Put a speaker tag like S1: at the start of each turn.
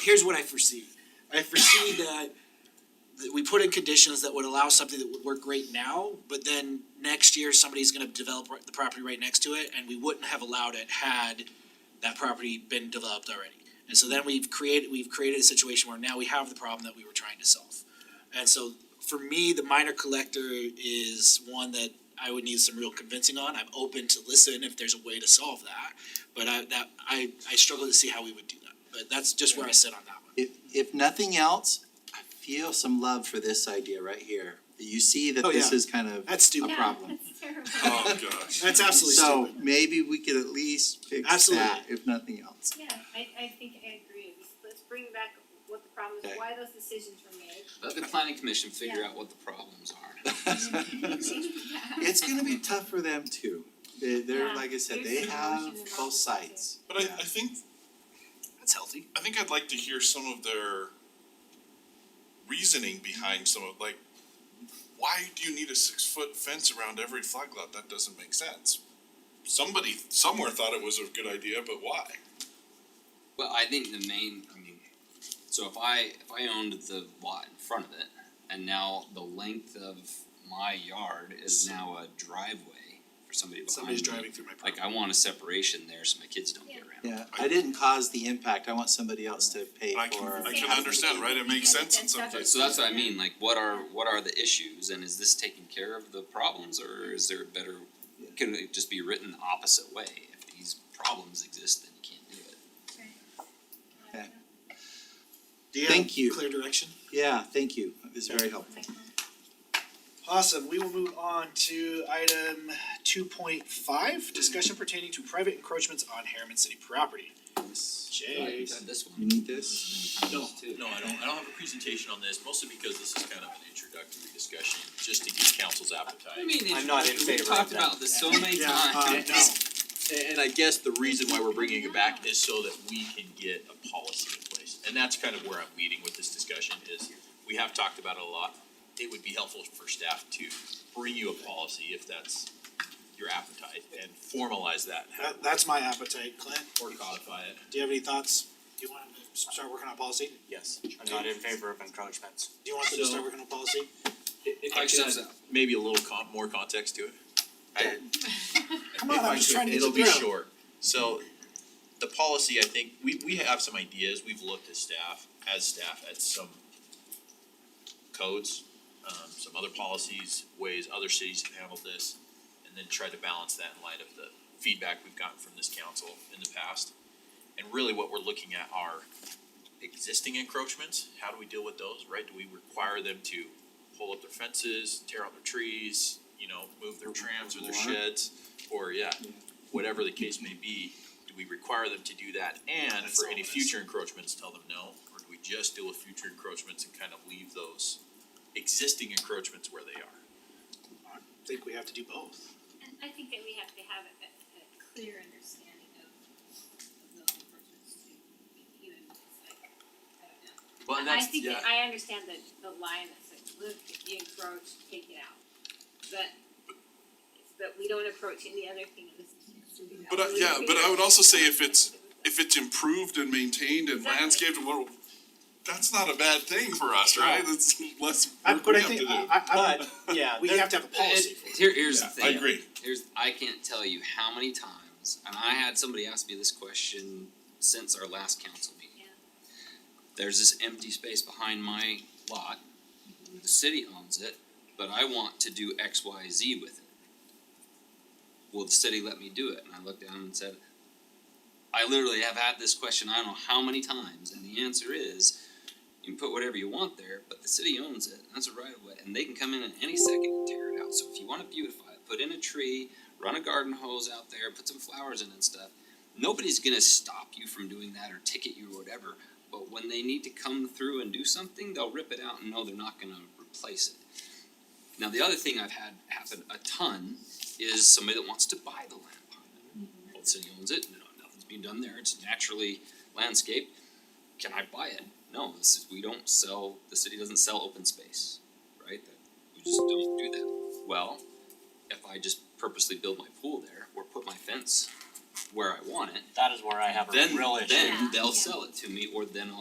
S1: here's what I foresee. I foresee that, that we put in conditions that would allow something that would work great now, but then next year, somebody's gonna develop the property right next to it, and we wouldn't have allowed it had that property been developed already. And so then we've created, we've created a situation where now we have the problem that we were trying to solve. And so for me, the minor collector is one that I would need some real convincing on. I'm open to listen if there's a way to solve that. But I that I I struggle to see how we would do that. But that's just where I sit on that one.
S2: If if nothing else, I feel some love for this idea right here. You see that
S1: Oh,
S2: this
S1: yeah.
S2: is kind of,
S1: That's stupid.
S2: A problem.
S3: Oh, gosh.
S1: That's absolutely
S2: so
S1: stupid.
S2: maybe we could at least fix
S1: Absolutely.
S2: that, if nothing else.
S4: Yeah, I, I think I agree. Let's- Let's bring back what the problem is,
S2: Okay.
S4: why those decisions were made.
S5: Let the planning commission figure
S4: Yeah.
S5: out what the problems are.
S2: It's gonna be tough for them too. They they're,
S4: Yeah,
S2: like I said,
S4: there's
S2: they
S4: some
S2: have
S4: emotion involved
S2: both
S4: with
S2: sides.
S3: But I,
S2: Yeah.
S3: I think
S1: That's healthy.
S3: I think I'd like to hear some of their reasoning behind some of like why do you need a six foot fence around every flag lot? That doesn't make sense. Somebody somewhere thought it was a good idea, but why?
S5: Well, I think the main, I mean, so if I, if I owned the lot in front of it, and now the length of my yard is now a driveway for somebody behind me.
S1: Somebody's driving through my property.
S5: Like, I want a separation there so my kids don't get around.
S2: Yeah, I didn't cause the impact, I want somebody else to pay for.
S3: I can I can
S4: Yeah.
S3: understand, right? It makes sense in some
S4: Yeah.
S3: cases.
S5: So that's what I mean, like, what are, what are the issues, and is this taking care of the problems, or is there a better, can it just be written the opposite way? If these problems exist, then you can't do it.
S2: Okay.
S1: Do you
S2: Thank you.
S1: have clear direction?
S2: Yeah, thank you, it's very helpful.
S1: Awesome, we will move on to item two point five, discussion pertaining to private encroachments on Harriman City property.
S5: Like,
S1: Jay.
S5: This one.
S2: You need this?
S6: No,
S5: too.
S6: no, I don't, I don't have a presentation on this, mostly because this is kind of an introductory discussion, just to get council's
S5: I
S6: appetite.
S5: mean,
S7: I'm not in
S5: we
S7: favor of
S5: talked
S7: that.
S5: about this so many
S1: Yeah,
S5: times.
S1: uh, no.
S6: And, and I guess the reason why we're bringing it back is so that we can get a policy in place, and that's kind of where I'm leading with this discussion is, we have talked about it a lot. It would be helpful for staff to bring you a policy if that's your appetite, and formalize that, and have
S1: That that's my appetite, Clint.
S6: or codify it.
S1: Do you have any thoughts? Do you want to start working on policy?
S6: Yes.
S7: I'm not in favor of encroachments.
S1: Do you want them to
S6: So-
S1: start working on policy?
S6: If I could add maybe a little con- more context to it. I,
S1: Come on,
S6: if I
S1: I'm just
S6: could,
S1: trying to get you
S6: It'll be
S1: through.
S6: short, so the policy, I think, we we have some ideas, we've looked at staff, as staff, at some codes, um some other policies, ways other cities have handled this, and then tried to balance that in light of the feedback we've gotten from this council in the past. And really what we're looking at are existing encroachments, how do we deal with those, right? Do we require them to pull up their fences, tear out their trees, you know, move their trams or their
S2: Or-
S6: sheds? Or yeah, whatever the case may be, do we require them to do that? And
S1: That's
S6: for
S1: all
S6: any
S1: it is.
S6: future encroachments, tell them no? Or do we just deal with future encroachments and kind of leave those existing encroachments where they are?
S1: I think we have to do both.
S4: And I think that we have to have a, a, a clear understanding of, of those approaches to, you know, it's like, I don't know.
S6: Well,
S4: I- I think that, I understand the, the line that says, look, you encroach, take it out, but, but we don't approach any other thing in this.
S3: But I, yeah, but I would also say if it's if it's improved and maintained and
S4: Exactly.
S3: landscaped, well, that's not a bad thing for us, right? It's less work we
S1: but I
S3: have to do.
S1: think, I, I,
S7: But, uh, yeah,
S1: I, we
S7: there-
S1: have to have a policy for it.
S5: Here, here's the
S3: Yeah,
S5: thing.
S3: I agree.
S5: Here's I can't tell you how many times, and I had somebody ask me this question since our last council meeting.
S4: Yeah.
S5: There's this empty space behind my lot. The city owns it, but I want to do X, Y, Z with it. Will the city let me do it? And I looked down and said, I literally have had this question I don't know how many times, and the answer is you can put whatever you want there, but the city owns it, and that's a right of way, and they can come in at any second and tear it out. So if you want to beautify it, put in a tree, run a garden hose out there, put some flowers in and stuff. Nobody's gonna stop you from doing that or ticket you or whatever. But when they need to come through and do something, they'll rip it out and know they're not gonna replace it. Now the other thing I've had happen a ton is somebody that wants to buy the land behind it. Well, the city owns it, no, nothing's being done there, it's naturally landscaped. Can I buy it? No, this is, we don't sell, the city doesn't sell open space, right? That- We just don't do that. Well, if I just purposely build my pool there or put my fence where I want it,
S7: That is where I have a
S5: then
S7: real issue.
S5: then
S4: Yeah,
S5: they'll
S4: yeah.
S5: sell it to me or then I'll